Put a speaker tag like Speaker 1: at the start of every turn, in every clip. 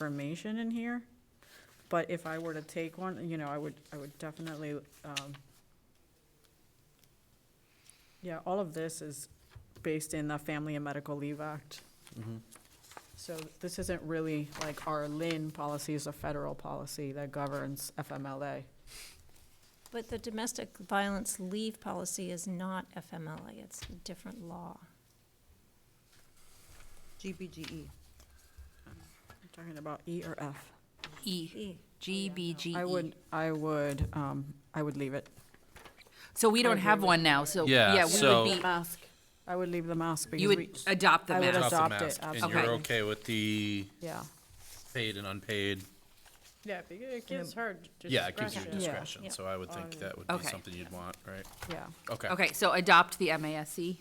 Speaker 1: information in here. But if I were to take one, you know, I would, I would definitely, um, yeah, all of this is based in the Family and Medical Leave Act. So this isn't really like our LIN policy is a federal policy that governs FMLA.
Speaker 2: But the domestic violence leave policy is not FMLA, it's a different law.
Speaker 1: E.
Speaker 3: GBGE.
Speaker 1: I'm Talking about E or F.
Speaker 4: E, G, B, G,
Speaker 1: I
Speaker 4: E.
Speaker 1: would, I would, um, I would leave it.
Speaker 4: So we don't have one now, so,
Speaker 5: Yeah,
Speaker 4: yeah, we
Speaker 5: so-
Speaker 4: would be,
Speaker 1: mask. I would leave the mask because
Speaker 4: you
Speaker 1: we,
Speaker 4: would adopt the
Speaker 1: Uh, I would
Speaker 4: mask.
Speaker 1: adopt- it,
Speaker 5: And you're
Speaker 4: absolutely.
Speaker 5: okay with the
Speaker 1: yeah.
Speaker 5: paid and unpaid?
Speaker 6: Yeah, because it gives her
Speaker 5: Yeah, it gives you
Speaker 1: Yeah.
Speaker 6: discretion.
Speaker 5: discretion, so I would think that would be
Speaker 4: Okay.
Speaker 5: something you'd want, right?
Speaker 1: Yeah,
Speaker 5: Okay.
Speaker 4: Okay, so adopt the MASC?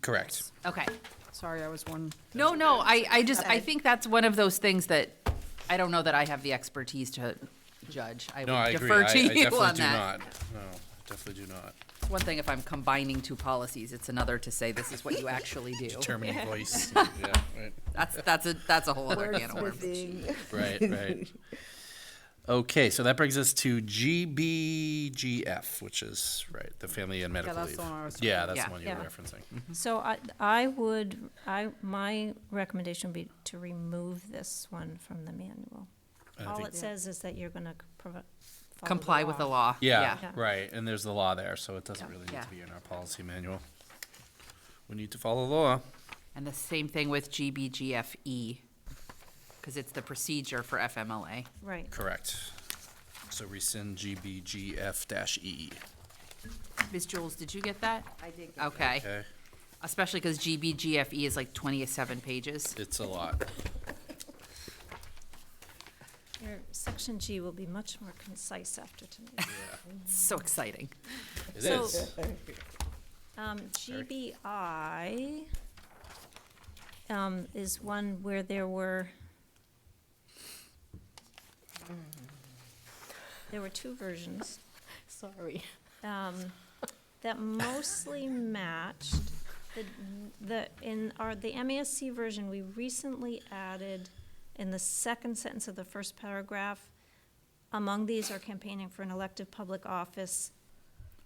Speaker 5: Correct.
Speaker 4: E? Okay.
Speaker 1: sorry, I was one,
Speaker 4: No, no, I, I just, I think that's one of those things that, I don't know that I have the expertise to judge. I
Speaker 5: No, I
Speaker 4: would
Speaker 5: agree.
Speaker 4: defer
Speaker 5: I I
Speaker 4: to
Speaker 5: definitely do
Speaker 4: you on that.
Speaker 5: not. No, I definitely do not.
Speaker 4: It's one thing if I'm combining two policies, it's another to say this is what you actually do.
Speaker 5: Determining voice, yeah, right.
Speaker 4: That's, that's a, that's a whole other can of worms.
Speaker 5: Right, right. Okay, so that brings us to GBGF, which is, right, the family and medical
Speaker 1: that's
Speaker 5: leave.
Speaker 1: the one I was
Speaker 5: Yeah,
Speaker 1: talking
Speaker 5: that's the
Speaker 4: about.
Speaker 5: one you were
Speaker 2: Yeah.
Speaker 5: referencing.
Speaker 2: So I, I would, I, my recommendation would be to remove this one from the manual.
Speaker 5: And I
Speaker 2: All
Speaker 5: think-
Speaker 2: it says is that you're gonna c- provi- follow
Speaker 4: Comply with the law.
Speaker 5: Yeah,
Speaker 2: Yeah.
Speaker 5: right, and there's the law there, so it doesn't really need
Speaker 4: Yeah.
Speaker 5: to be in our policy manual. We need to follow the law.
Speaker 4: And the same thing with GBGFE, because E, it's the procedure for FMLA.
Speaker 2: Right,
Speaker 5: Correct. So rescind GBGF dash E.
Speaker 4: Ms. Jules, did you get that?
Speaker 3: I did get
Speaker 4: Okay,
Speaker 5: Okay,
Speaker 4: especially because GBGFE E is like twenty-seven pages.
Speaker 5: it's a lot.
Speaker 2: your section G will be much more concise after tonight.
Speaker 4: It's so exciting.
Speaker 5: It
Speaker 2: So-
Speaker 5: is.
Speaker 2: Um, GBI, um, is one where there were, there were two versions.
Speaker 3: Sorry.
Speaker 2: um, that mostly matched the, the, in our, the MASC version, we recently added in the second sentence of the first paragraph, among these are campaigning for an elective public office,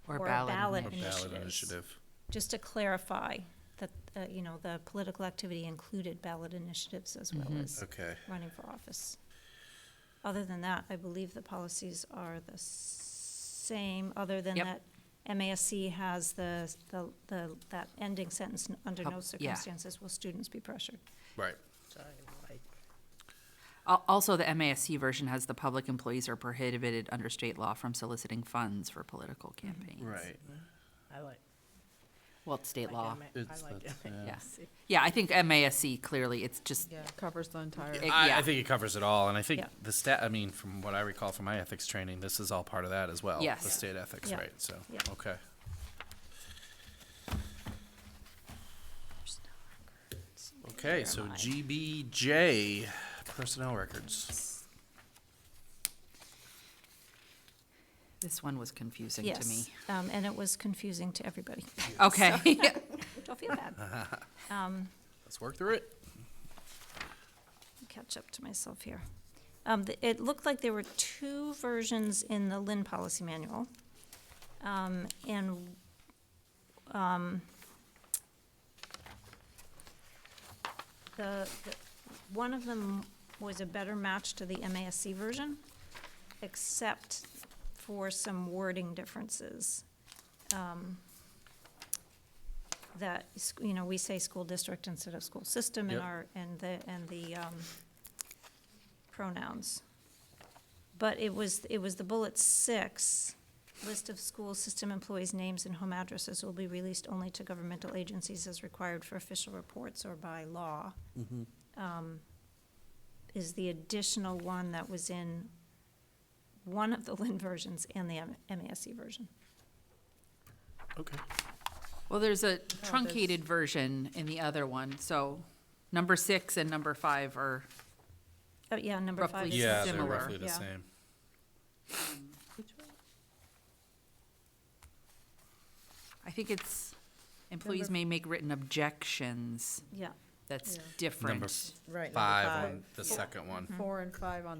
Speaker 4: Or
Speaker 2: Or a
Speaker 4: ballot.
Speaker 2: ballot.
Speaker 5: Or ballot
Speaker 2: Initiatives.
Speaker 5: initiative.
Speaker 2: just to clarify that, uh, you know, the political activity included ballot initiatives as well
Speaker 4: Mm-hmm.
Speaker 2: as
Speaker 5: Okay,
Speaker 2: running for office. Other than that, I believe the policies are the same, other than
Speaker 4: Yep.
Speaker 2: that MASC has the, the, the, that ending sentence, "N- under
Speaker 4: Pub-
Speaker 2: no
Speaker 4: Oh, yeah.
Speaker 2: circumstances will students be pressured.
Speaker 5: right.
Speaker 4: Al- Also, the MASC version has the public employees are prohibited under state law from soliciting funds for political campaigns.
Speaker 5: Right.
Speaker 7: I like,
Speaker 4: Well, it's state law,
Speaker 7: I ma-
Speaker 5: It's-
Speaker 7: I like
Speaker 5: that's-
Speaker 7: it.
Speaker 4: yes. Yeah, I think MASC clearly, it's just,
Speaker 3: Yeah.
Speaker 1: covers the entire.
Speaker 4: Eh,
Speaker 5: I,
Speaker 4: yeah.
Speaker 5: I think it covers it all, and I think
Speaker 2: Yeah.
Speaker 5: the stat, I mean, from what I recall from my ethics training, this is all part of that as well.
Speaker 4: Yes.
Speaker 5: The state ethics,
Speaker 2: Yeah.
Speaker 5: right, so,
Speaker 2: Yeah.
Speaker 5: okay. Okay, so GBJ, personnel records.
Speaker 4: this one was confusing to me.
Speaker 2: Yes, um, and it was confusing to everybody.
Speaker 4: Okay,
Speaker 2: Don't feel bad.
Speaker 5: Let's work through it.
Speaker 2: catch up to myself here. Um, th- it looked like there were two versions in the Lynn policy manual. Um, and, um, the, the, one of them was a better match to the MASC version, except for some wording differences. Um, That, s- you know, we say school district instead of school system in
Speaker 5: Yep.
Speaker 2: our, and the, and the, um, pronouns. But it was, it was the bullet six, list of school system employees' names and home addresses will be released only to governmental agencies as required for official reports or by law. Um, Is the additional one that was in one of the Lynn versions and the M- MASC version.
Speaker 5: Okay.
Speaker 4: well, there's a truncated version in the other one, so number six and number five are,
Speaker 2: Oh, yeah, number five
Speaker 4: Roughly
Speaker 2: is.
Speaker 5: Yeah, they're
Speaker 4: similar.
Speaker 5: roughly the
Speaker 2: Yeah.
Speaker 5: same.
Speaker 4: I think it's, employees may make written objections.
Speaker 2: Yeah,
Speaker 8: that's
Speaker 1: Yeah.
Speaker 8: different.
Speaker 5: Number
Speaker 4: Right, number
Speaker 5: five
Speaker 4: five.
Speaker 5: on the second one.
Speaker 1: Mm-hmm. Four and five on